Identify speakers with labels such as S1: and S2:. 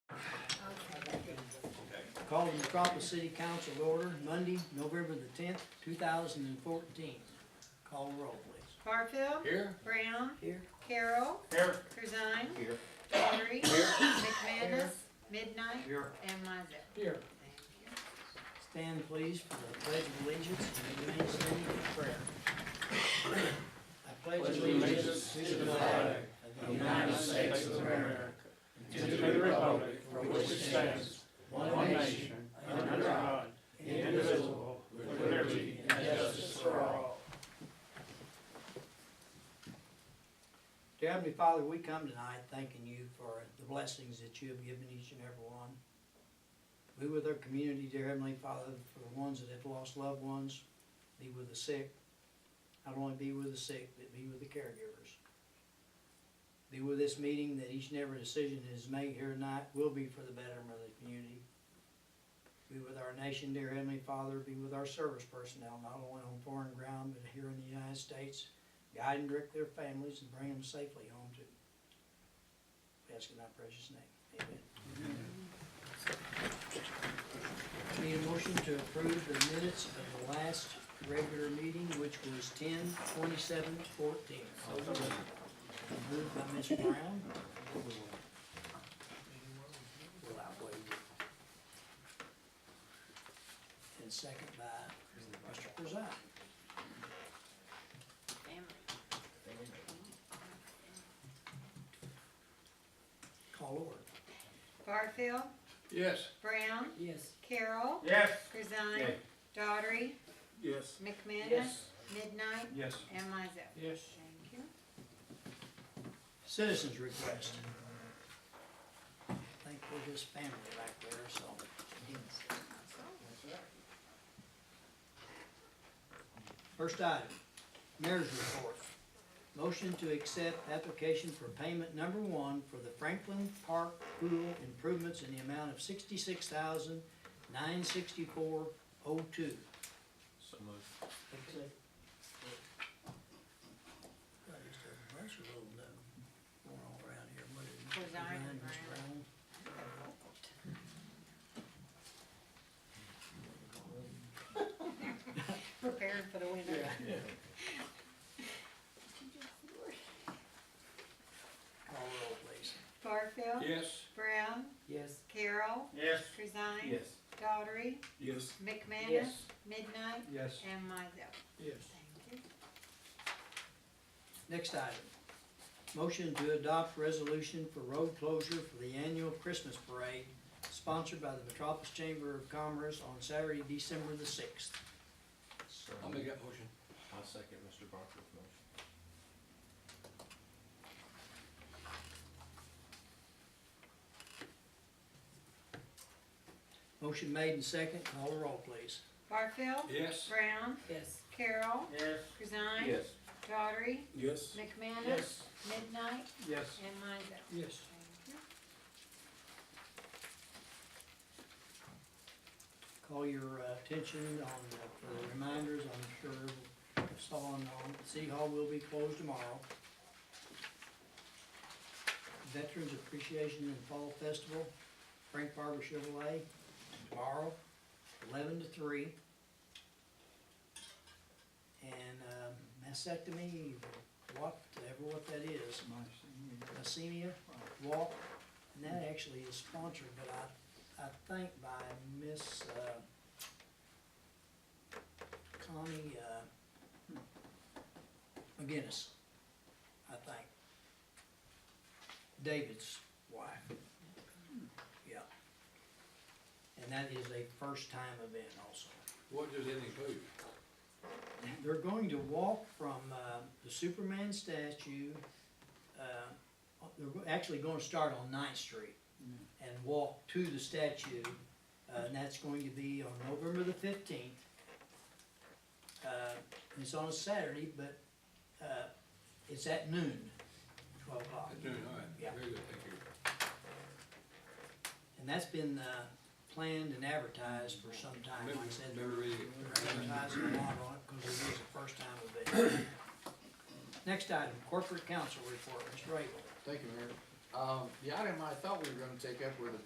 S1: Call the Metropolis City Council to order Monday, November the tenth, two thousand and fourteen. Call the roll, please.
S2: Barfield.
S3: Here.
S2: Brown.
S1: Here.
S2: Carroll.
S3: Here.
S2: Kurzine.
S3: Here.
S2: Daughtry. McManus. Midnight.
S1: Here.
S2: And Mizell.
S3: Here.
S2: Thank you.
S1: Stand please for the pledge of allegiance and remain standing for prayer. I pledge allegiance to the flag of the United States of America
S4: to the republic for which it stands, one nation, under God, indivisible, with liberty and justice for all.
S1: Dear Heavenly Father, we come tonight thanking you for the blessings that you have given each and every one. Be with our community, dear Heavenly Father, for the ones that have lost loved ones. Be with the sick. Not only be with the sick, but be with the caregivers. Be with this meeting that each and every decision that is made here tonight will be for the betterment of the community. Be with our nation, dear Heavenly Father. Be with our service personnel, not only on foreign ground, but here in the United States guide and direct their families and bring them safely home to. We ask in thy precious name, amen. Need a motion to approve the minutes of the last regular meeting, which was ten twenty-seven fourteen. Moved by Ms. Brown. Will outweigh it. And second by Mr. Preside. Call order.
S2: Barfield.
S3: Yes.
S2: Brown.
S1: Yes.
S2: Carroll.
S4: Yes.
S2: Kurzine. Daughtry.
S4: Yes.
S2: McManus. Midnight.
S4: Yes.
S2: And Mizell.
S4: Yes.
S2: Thank you.
S1: Citizens request. I think we're just family back there, so. First item, mayor's report. Motion to accept application for payment number one for the Franklin Park Pool improvements in the amount of sixty-six thousand, nine sixty-four oh two.
S3: So moved.
S2: Preside and Brown. Preparing for the winter.
S1: Call roll, please.
S2: Barfield.
S4: Yes.
S2: Brown.
S1: Yes.
S2: Carroll.
S4: Yes.
S2: Kurzine.
S3: Yes.
S2: Daughtry.
S4: Yes.
S2: McManus. Midnight.
S4: Yes.
S2: And Mizell.
S4: Yes.
S2: Thank you.
S1: Next item, motion to adopt resolution for road closure for the annual Christmas parade sponsored by the Metropolis Chamber of Commerce on Saturday, December the sixth.
S3: So
S5: I'll make
S3: moved.
S5: that motion.
S3: I'll second Mr. Barker's motion.
S1: Motion made and second, call the roll, please.
S2: Barfield.
S4: Yes.
S2: Brown.
S1: Yes.
S2: Carroll.
S4: Yes.
S2: Kurzine. Daughtry.
S4: Yes.
S2: McManus. Midnight.
S4: Yes.
S2: And Mizell.
S1: Yes.
S2: Thank you.
S1: Call your uh, attention on, the- for the reminders, I'm sure, saw on, City Hall will be closed tomorrow. Veterans Appreciation and Fall Festival, Frank Barber Chevrolet, tomorrow, eleven to three. And um, mastectomy, whatever what that is, Messenia Walk, uh, and that actually is sponsored, but I I think by Miss, uh, Connie, uh, McGinnis, I think. David's wife. Yeah. And that is a first-time event also.
S5: What does it include?
S1: They're going to walk from, uh, the Superman statue, uh, they're go- actually gonna start on Ninth Street and walk to the statue, uh, and that's going to be on November the fifteenth. Uh, it's on a Saturday, but, uh, it's at noon, twelve o'clock.
S5: At noon, all right.
S1: Yeah.
S5: Very good, thank you.
S1: And that's been, uh, planned and advertised for some time, like I
S5: Remember-
S1: said.
S5: Remember reading it.
S1: advertising a lot on it because it is the first time event. Next item, corporate council report, Mr. Rabel.
S6: Thank you, Mayor. Um, the item I thought we were gonna take up were the